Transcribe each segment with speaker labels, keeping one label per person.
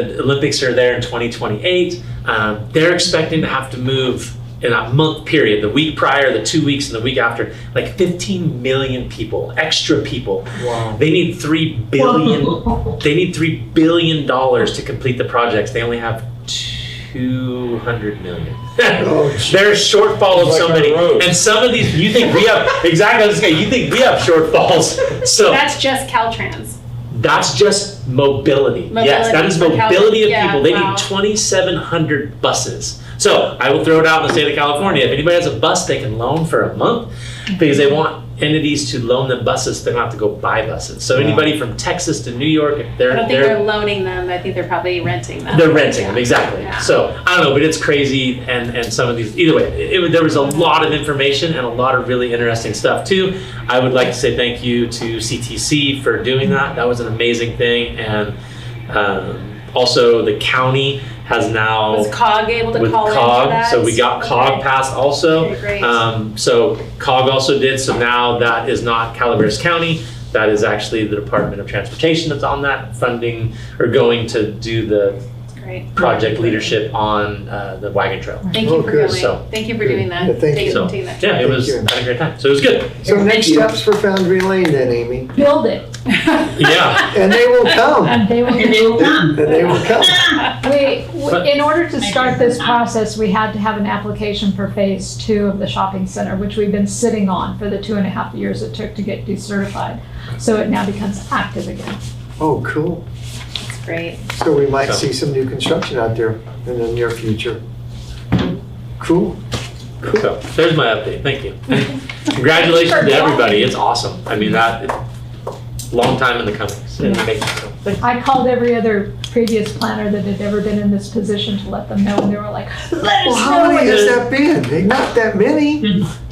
Speaker 1: The Olympics are there in 2028. Um, they're expecting to have to move in a month period, the week prior, the two weeks, and the week after, like 15 million people, extra people.
Speaker 2: Wow.
Speaker 1: They need three billion. they need three billion dollars to complete the projects. They only have 200 million. There's shortfall of
Speaker 2: Like our
Speaker 1: somebody,
Speaker 2: roads.
Speaker 1: and some of these you think we have exactly. I was gonna say, You think we have shortfalls? So
Speaker 3: That's just Caltrans.
Speaker 1: that's just mobility. yes, that is
Speaker 3: Mobility for
Speaker 1: mobility of
Speaker 3: Cali-
Speaker 1: people. They
Speaker 3: yeah, wow.
Speaker 1: need 2,700 buses. So I will throw it out in the state of California. If anybody has a bus they can loan for a month, because they want entities to loan them buses, so they don't have to go buy buses. So
Speaker 2: Wow.
Speaker 1: anybody from Texas to New York, if
Speaker 3: I
Speaker 1: they're
Speaker 3: don't think
Speaker 1: they're
Speaker 3: they're loaning them, I think they're probably renting them.
Speaker 1: they're renting them
Speaker 3: Yeah.
Speaker 1: exactly.
Speaker 3: Yeah.
Speaker 1: So I don't know, but it's crazy, and and some of these. Either way, it, it- there was a lot of information and a lot of really interesting stuff too. I would like to say thank you to CTC for doing that. That was an amazing thing, and um, also the county has now
Speaker 3: Was COG able to
Speaker 1: with
Speaker 3: call in for
Speaker 1: COG.
Speaker 3: that?
Speaker 1: So we got COG
Speaker 3: Okay.
Speaker 1: passed also.
Speaker 3: Okay, great.
Speaker 1: Um, so COG also did. So now that is not Calaveras County. That is actually the Department of Transportation that's on that funding or going to do the
Speaker 3: Great.
Speaker 1: project leadership on uh, the wagon trail.
Speaker 3: Thank you
Speaker 2: Oh,
Speaker 3: for
Speaker 2: good.
Speaker 3: going,
Speaker 1: So-
Speaker 3: thank you for doing that.
Speaker 2: Yeah, thank you.
Speaker 3: for
Speaker 1: So,
Speaker 3: taking that.
Speaker 1: Yeah, it
Speaker 2: Thank
Speaker 1: was
Speaker 2: you.
Speaker 1: had a great time. So it was good.
Speaker 2: So
Speaker 4: Thank
Speaker 2: next
Speaker 4: you.
Speaker 2: steps for Foundry Lane then, Amy,
Speaker 4: Build it,
Speaker 1: Yeah.
Speaker 2: and they will come,
Speaker 4: and they will.
Speaker 5: And they will come.
Speaker 2: and they will come.
Speaker 4: We, we- in order to start this process, we had to have an application for phase two of the shopping center, which we've been sitting on for the two and a half years it took to get decertified. So it now becomes active again.
Speaker 2: Oh, cool.
Speaker 3: That's great.
Speaker 2: So we might
Speaker 1: So-
Speaker 2: see some new construction out there in the near future. Cool.
Speaker 1: So there's my update. Thank you. Congratulations to everybody. It's awesome. I mean that long time in the coming. and making, so thank
Speaker 4: I called every other previous planner that had ever been in this position to let them know, and they were like, let
Speaker 2: Well,
Speaker 4: us
Speaker 2: how
Speaker 4: know.
Speaker 2: many
Speaker 4: when-"
Speaker 2: has that been? They- Not that many.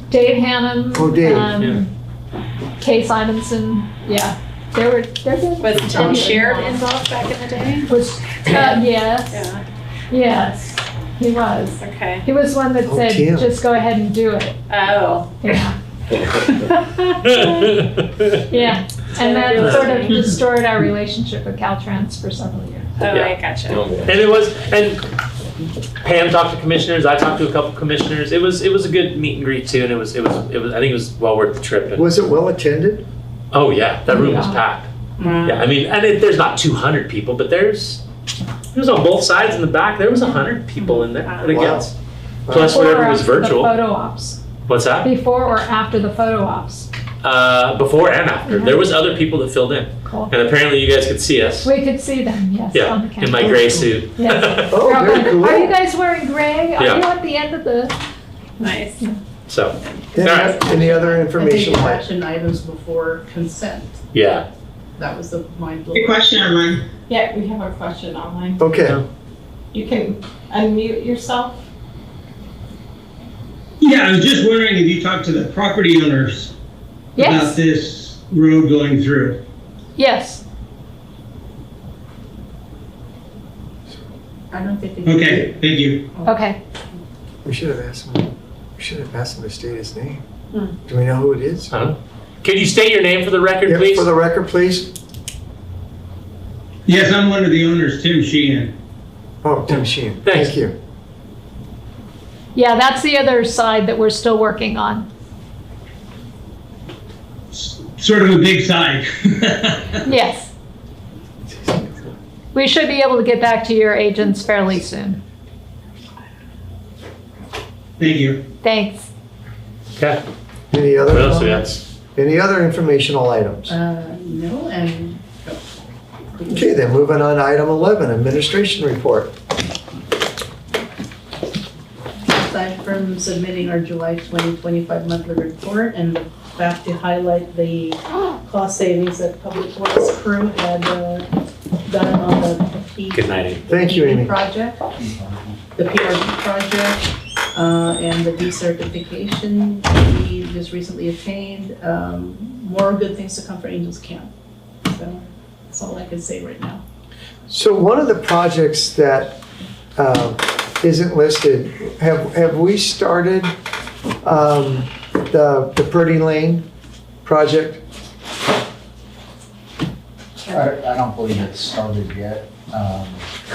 Speaker 4: Dave Hannum.
Speaker 2: Oh, Dave,
Speaker 4: um,
Speaker 1: yeah.
Speaker 4: Kay Simonson, yeah, they were, they're good.
Speaker 3: Was Tim
Speaker 4: Um,
Speaker 3: Sheard involved back in the day?
Speaker 4: Was, uh, yes,
Speaker 3: Yeah,
Speaker 4: yes, he was.
Speaker 3: okay.
Speaker 4: He was one that
Speaker 2: Oh,
Speaker 4: said,
Speaker 2: Tim.
Speaker 4: just go ahead and do it.
Speaker 3: Oh.
Speaker 4: Yeah.
Speaker 1: you.
Speaker 4: yeah. And that
Speaker 3: Really?
Speaker 4: sort of destroyed our relationship with Caltrans for several years.
Speaker 3: Oh,
Speaker 1: Yeah.
Speaker 3: I gotcha.
Speaker 1: And it was, and Pam talked to commissioners. I talked to a couple commissioners. It was, it was a good meet and greet too, and it was, it was, it was. I think it was well worth the trip. And,
Speaker 2: Was it well attended?
Speaker 1: oh yeah, that room was
Speaker 4: Yeah.
Speaker 1: packed. Yeah, I mean, and it, there's not 200 people, but there's, it was on both sides in the back. There was 100 people in there. I think
Speaker 2: Wow.
Speaker 1: that's- Plus whatever was
Speaker 4: Before or after The
Speaker 1: virtual.
Speaker 4: photo ops.
Speaker 1: What's that?
Speaker 4: Before or after the photo ops.
Speaker 1: Uh, before and after. There was other people that filled in,
Speaker 4: Mm-hmm. Cool.
Speaker 1: and apparently you guys could see us
Speaker 4: We could see them, yes,
Speaker 1: Yeah,
Speaker 4: on the
Speaker 1: in
Speaker 4: camera.
Speaker 1: my gray suit.
Speaker 4: Yes.
Speaker 2: Oh,
Speaker 4: We're all
Speaker 2: very
Speaker 4: like,
Speaker 2: cool.
Speaker 4: Are you guys wearing gray? Are
Speaker 1: Yeah.
Speaker 4: you at the end of the?
Speaker 3: Nice.
Speaker 1: so
Speaker 2: Any-
Speaker 1: All right.
Speaker 2: Any other
Speaker 6: I think
Speaker 2: information? like-
Speaker 6: action items before consent.
Speaker 1: yeah,
Speaker 6: That was the mind
Speaker 5: Good
Speaker 6: blow.
Speaker 5: question online.
Speaker 7: Yeah, we have a question online.
Speaker 2: Okay,
Speaker 7: You can unmute yourself.
Speaker 8: Yeah, I was just wondering if you talked to the property owners about
Speaker 4: Yes.
Speaker 8: this road going through.
Speaker 4: Yes.
Speaker 6: I don't think they.
Speaker 8: Okay, thank you.
Speaker 4: Okay.
Speaker 2: we should have asked him, we should have asked him to state his name. Do we know who it is?
Speaker 1: I don't know. um, Can you state your name for the record,
Speaker 2: Yeah,
Speaker 1: please?
Speaker 2: For the record, please.
Speaker 8: Yes, I'm one of the owners, Tim Sheehan.
Speaker 2: Oh, Tim Sheehan.
Speaker 1: Thanks.
Speaker 2: Thank you.
Speaker 4: Yeah, that's the other side that we're still working on.
Speaker 8: S- Sort of a big side.
Speaker 4: Yes. We should be able to get back to your agents fairly soon.
Speaker 8: Thank you.
Speaker 4: Thanks.
Speaker 1: okay.
Speaker 2: Any other?
Speaker 1: What else do we
Speaker 2: comments?
Speaker 1: have?
Speaker 2: Any other informational items?
Speaker 6: Uh, no, and.
Speaker 2: Okay, then moving on to item 11, administration report.
Speaker 6: aside from submitting our July 2025 monthly report and the fact to highlight the cost savings that Public Works crew had uh, done on the peak
Speaker 1: Good night. Amy.
Speaker 2: Thank you, Amy.
Speaker 6: Project, the PRG project, uh, and the decertification we just recently obtained. Um, More good things to come for Angels Camp. So that's all I can say right now.
Speaker 2: So one of the projects that um, isn't listed, have, have we started um, the the Purdy Lane project?
Speaker 9: I, I don't believe it's started yet. Um,